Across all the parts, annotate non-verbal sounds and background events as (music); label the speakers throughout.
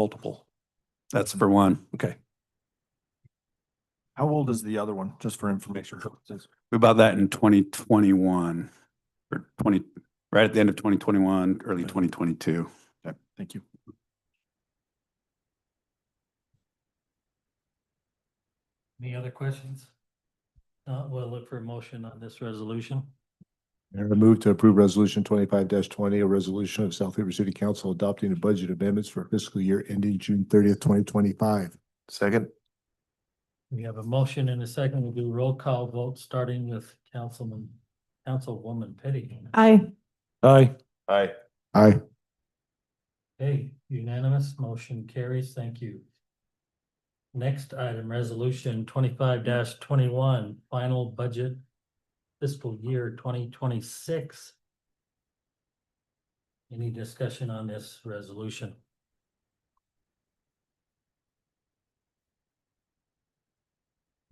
Speaker 1: multiple? That's for one. Okay.
Speaker 2: How old is the other one, just for information purposes?
Speaker 1: We bought that in twenty twenty-one or twenty, right at the end of twenty twenty-one, early twenty twenty-two.
Speaker 2: Okay, thank you.
Speaker 3: Any other questions? Uh, we'll look for a motion on this resolution.
Speaker 4: Mayor, I move to approve Resolution twenty-five twenty, a resolution of South Weaver City Council adopting the budget amendments for fiscal year ending June thirtieth, twenty twenty-five. Second.
Speaker 3: We have a motion and a second. We'll do roll call vote, starting with Councilman, Councilwoman Petty.
Speaker 5: Aye.
Speaker 2: Aye.
Speaker 4: Aye. Aye.
Speaker 3: Okay, unanimous, motion carries. Thank you. Next item, resolution twenty-five twenty-one, final budget fiscal year twenty twenty-six. Any discussion on this resolution?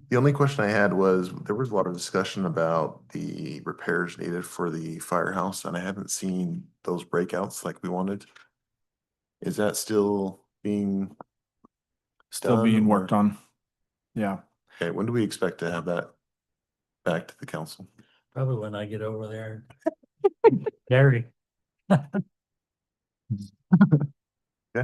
Speaker 6: The only question I had was, there was a lot of discussion about the repairs needed for the firehouse, and I haven't seen those breakouts like we wanted. Is that still being?
Speaker 2: Still
Speaker 6: done,
Speaker 2: being
Speaker 6: or-
Speaker 2: worked on. Yeah.
Speaker 6: Okay, when do we expect to have that back to the council?
Speaker 3: Probably when I get over there. Gary.
Speaker 6: (laughs)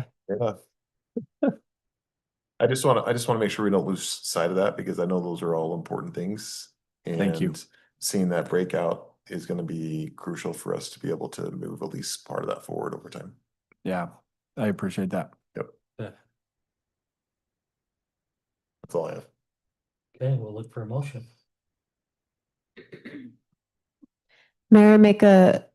Speaker 6: I just want to, I just want to make sure we don't lose sight of that because I know those are all important things.
Speaker 2: Thank you.
Speaker 6: and Seeing that breakout is going to be crucial for us to be able to move at least part of that forward over time.
Speaker 2: Yeah, I appreciate that.
Speaker 6: That's all I have.
Speaker 3: Okay, we'll look for a motion.
Speaker 5: Mayor, I make a,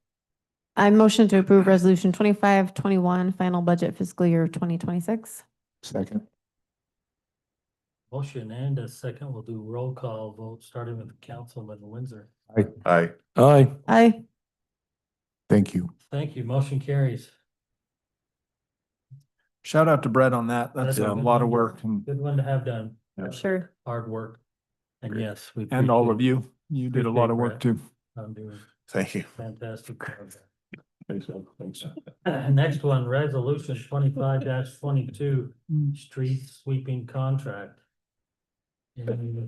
Speaker 5: I motion to approve resolution twenty-five, twenty-one, final budget fiscal year twenty twenty-six.
Speaker 4: Second.
Speaker 3: Motion and a second. We'll do roll call vote, starting with Councilman Windsor.
Speaker 6: Aye.
Speaker 2: Aye.
Speaker 5: Aye.
Speaker 4: Thank you.
Speaker 3: Thank you. Motion carries.
Speaker 2: Shout out to Brett on that. That's
Speaker 3: That's
Speaker 2: a
Speaker 3: a good
Speaker 2: lot of
Speaker 3: one.
Speaker 2: work and,
Speaker 3: Good one to have done.
Speaker 2: Yeah.
Speaker 5: Sure.
Speaker 3: Hard work. And
Speaker 6: Great.
Speaker 3: yes, we.
Speaker 2: and all of
Speaker 3: appreciate
Speaker 2: you. You did a lot of work too.
Speaker 3: I'm doing
Speaker 6: Thank you.
Speaker 3: fantastic. job.
Speaker 6: Thanks, man. Thanks.
Speaker 3: (laughs) Next one, resolution twenty-five twenty-two,
Speaker 5: Hmm.
Speaker 3: street sweeping contract. Any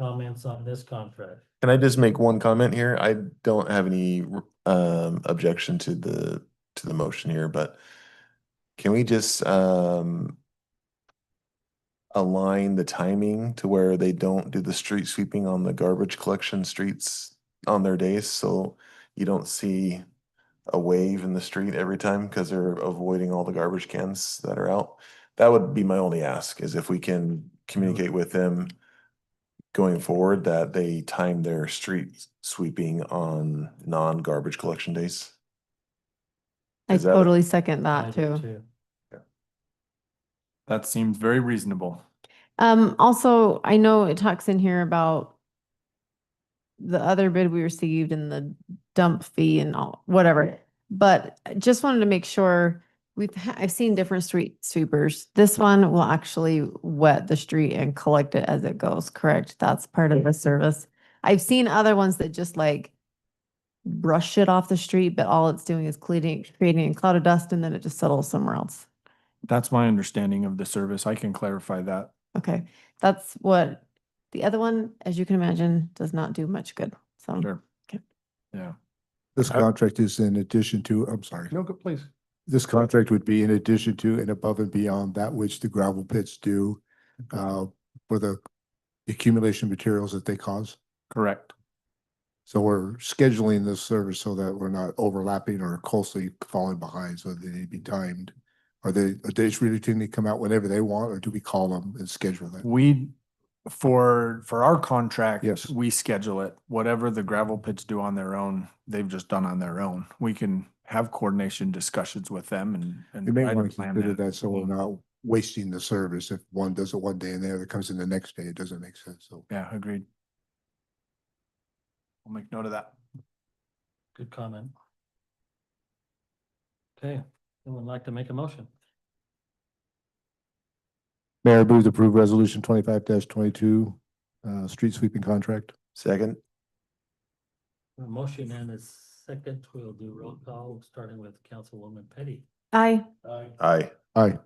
Speaker 3: comments on this contract?
Speaker 6: Can I just make one comment here? I don't have any um objection to the to the motion here, but can we just um align the timing to where they don't do the street sweeping on the garbage collection streets on their days, so you don't see a wave in the street every time because they're avoiding all the garbage cans that are out. That would be my only ask is if we can communicate with them going forward that they time their street sweeping on non-garbage collection days.
Speaker 5: I
Speaker 6: Is that a-
Speaker 5: totally second
Speaker 3: I
Speaker 5: that
Speaker 3: do
Speaker 5: too.
Speaker 2: That seems very reasonable.
Speaker 5: Um, also, I know it talks in here about the other bid we received and the dump fee and all, whatever. But I just wanted to make sure, we've, ha- I've seen different street sweepers. This one will actually wet the street and collect it as it goes, correct? That's part of the service. I've seen other ones that just like brush it off the street, but all it's doing is cleaning, creating a cloud of dust and then it just settles somewhere else.
Speaker 2: That's my understanding of the service. I can clarify that.
Speaker 5: Okay, that's what, the other one, as you can imagine, does not do much good, so.
Speaker 2: Sure.
Speaker 4: This contract is in addition to, I'm sorry.
Speaker 2: No, please.
Speaker 4: This contract would be in addition to and above and beyond that which the gravel pits do uh for the accumulation materials that they cause.
Speaker 2: Correct.
Speaker 4: So we're scheduling this service so that we're not overlapping or closely falling behind, so they need to be timed. Are they, are they just really tend to come out whenever they want, or do we call them and schedule them?
Speaker 2: We, for, for our contract.
Speaker 4: Yes.
Speaker 2: We schedule it. Whatever the gravel pits do on their own, they've just done on their own. We can have coordination discussions with them and. and
Speaker 4: You may
Speaker 2: try to
Speaker 4: want to
Speaker 2: plan Mm-hmm.
Speaker 4: consider that, so we're not wasting the service. If one does it one day and the other comes in the next day, it doesn't make sense, so.
Speaker 2: Yeah, agreed. I'll make note of that.
Speaker 3: Good comment. Okay, someone like to make a motion?
Speaker 4: Mayor, move to approve resolution twenty-five twenty-two, uh, street sweeping contract.
Speaker 6: Second.
Speaker 3: A motion and a second. We'll do roll call, starting with Councilwoman Petty.
Speaker 5: Aye,
Speaker 3: Aye.
Speaker 6: Aye.
Speaker 4: Aye.